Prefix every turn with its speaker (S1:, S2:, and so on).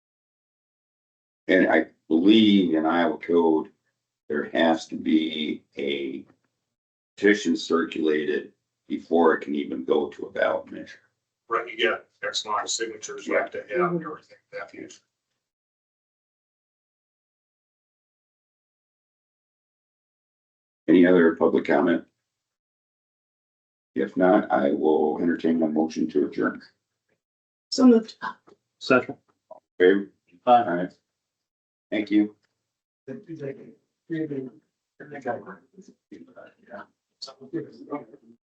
S1: And I believe in Iowa code, there has to be a petition circulated before it can even go to a ballot measure.
S2: Right, you get X amount of signatures, you have to have everything, that huge.
S1: Any other public comment? If not, I will entertain my motion to adjourn.
S3: So moved.
S4: Second.
S1: Okay, all
S4: Aye.
S1: right. Thank you.
S2: Yeah.